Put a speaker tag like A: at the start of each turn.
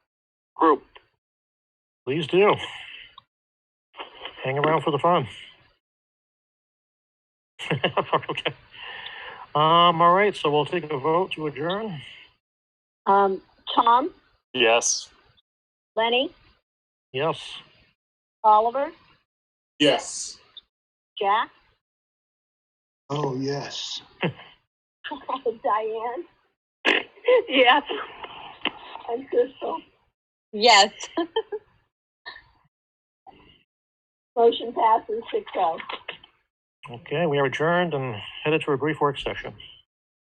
A: Please do. Hang around for the fun. okay. Um, all right, so we'll take a vote to adjourn.
B: Um, Tom,
A: Yes.
B: Lenny,
A: Yes.
B: Oliver,
C: Yes.
B: Jack,
C: Oh, yes.
B: Diane. Yes. And Crystal. Yes. Motion passes six oh.
A: Okay, we are adjourned and headed to a brief work session.